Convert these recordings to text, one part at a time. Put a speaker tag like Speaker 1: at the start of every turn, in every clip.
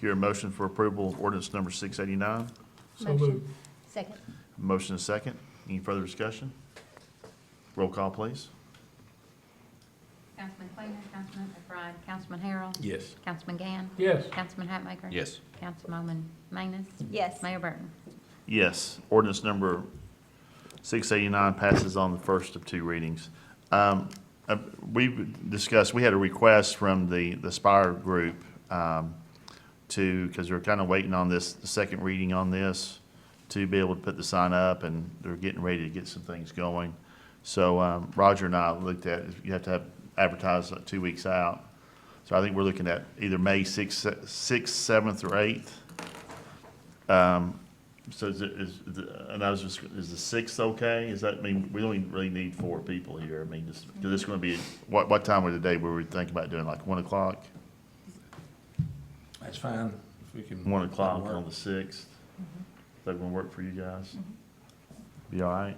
Speaker 1: Hear a motion for approval of ordinance number 689.
Speaker 2: So moved.
Speaker 3: Motion. Second.
Speaker 1: Motion is second. Any further discussion? Roll call, please.
Speaker 4: Councilman Quainer, Councilman McBride, Councilman Harrell.
Speaker 2: Yes.
Speaker 4: Councilman Gann.
Speaker 2: Yes.
Speaker 4: Councilman Hatmaker.
Speaker 5: Yes.
Speaker 4: Councilwoman Manis.
Speaker 3: Yes.
Speaker 4: Mayor Burton.
Speaker 1: Yes, ordinance number 689 passes on the first of two readings. Um, uh, We discussed, we had a request from the the Spire Group um, to, because they're kind of waiting on this, the second reading on this, to be able to put the sign up, and they're getting ready to get some things going. So um, Roger and I looked at, you have to have advertised like two weeks out. So I think we're looking at either May 6th, 7th, or Um, 8th. So is, it- is, the- and I was just, is the sixth okay? Is that, I mean, we only really need four people here. I mean, just, because it's going to be, what, what time of the day were we thinking about doing, like one o'clock?
Speaker 2: That's fine. If we can.
Speaker 1: One o'clock on the sixth? Is that going to work for you guys? Be all right?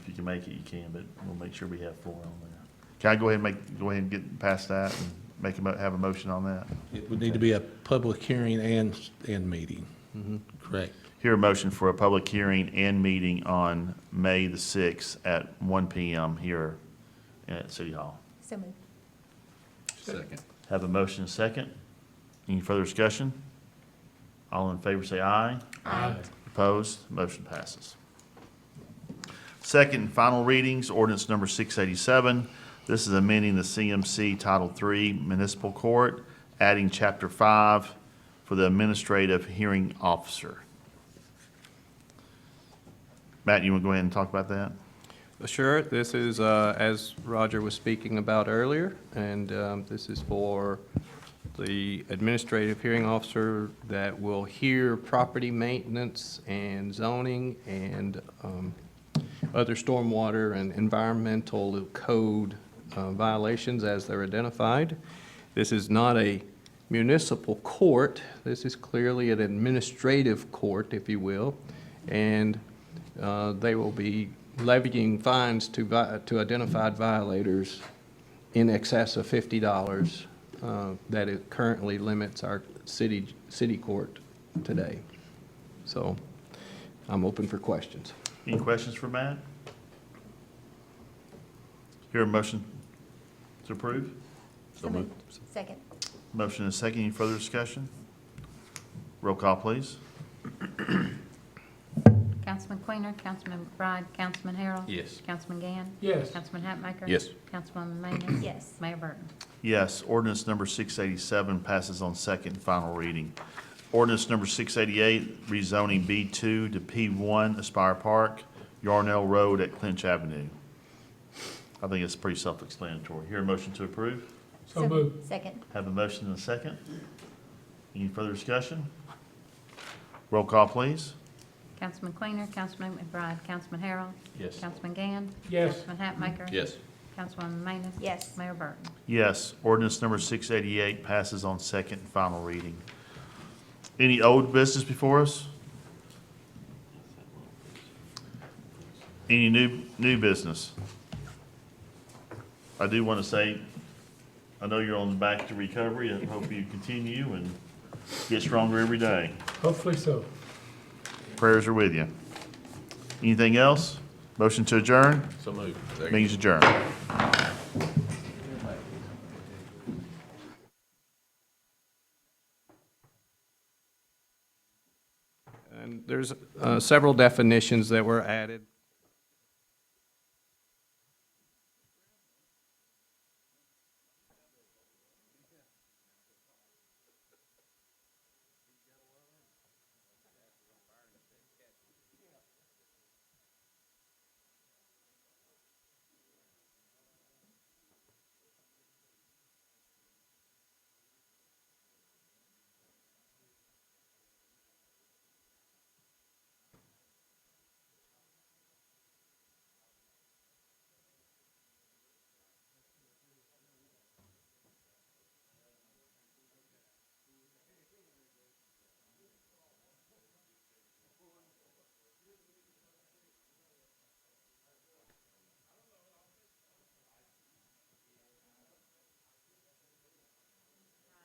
Speaker 1: If you can make it, you can, but we'll make sure we have four on there. Can I go ahead and make, go ahead and get past that and make a, mo- have a motion on that?
Speaker 6: It would need to be a public hearing and, and meeting. Correct.
Speaker 1: Hear a motion for a public hearing and meeting on May the sixth at one PM here at City Hall.
Speaker 3: So moved.
Speaker 5: Second.
Speaker 1: Have a motion and a second. Any further discussion? All in favor say aye.
Speaker 3: Aye.
Speaker 1: Opposed? Motion passes. Second and final readings, ordinance number 687. This is amending the CMC Title III Municipal Court, adding Chapter 5 for the Administrative Hearing Officer. Matt, you want to go ahead and talk about that?
Speaker 7: Sure, this is, uh, as Roger was speaking about earlier, and um, this is for the administrative hearing officer that will hear property maintenance and zoning and um, other stormwater and environmental code uh, violations as they're identified. This is not a municipal court, this is clearly an administrative court, if you will, and uh, they will be levying fines to, vi- to identified violators in excess of fifty dollars uh, that it currently limits our city, city court today. So I'm open for questions.
Speaker 1: Any questions for Matt? Hear a motion to approve?
Speaker 3: So moved. Second.
Speaker 1: Motion and second. Any further discussion? Roll call, please.
Speaker 4: Councilman Quainer, Councilman McBride, Councilman Harrell.
Speaker 5: Yes.
Speaker 4: Councilman Gann.
Speaker 2: Yes.
Speaker 4: Councilman Hatmaker.
Speaker 5: Yes.
Speaker 4: Councilwoman Manis.
Speaker 3: Yes.
Speaker 4: Mayor Burton.
Speaker 1: Yes, ordinance number 687 passes on second and final reading. Ordinance number 688, rezoning B2 to P1 Aspire Park, Yarnell Road at Clinch Avenue. I think it's pretty self-explanatory. Hear a motion to approve?
Speaker 2: So moved.
Speaker 3: Second.
Speaker 1: Have a motion and a second. Any further discussion? Roll call, please.
Speaker 4: Councilman Quainer, Councilman McBride, Councilman Harrell.
Speaker 5: Yes.
Speaker 4: Councilman Gann.
Speaker 2: Yes.
Speaker 4: Councilman Hatmaker.
Speaker 5: Yes.
Speaker 4: Councilwoman Manis.
Speaker 3: Yes.
Speaker 4: Mayor Burton.
Speaker 1: Yes, ordinance number 688 passes on second and final reading. Any old business before us? Any new, new business? I do want to say, I know you're on the back to recovery, I hope you continue and get stronger every day.
Speaker 2: Hopefully so.
Speaker 1: Prayers are with you. Anything else? Motion to adjourn?
Speaker 5: So moved. Second.
Speaker 1: Means adjourned.
Speaker 7: And there's uh, several definitions that were added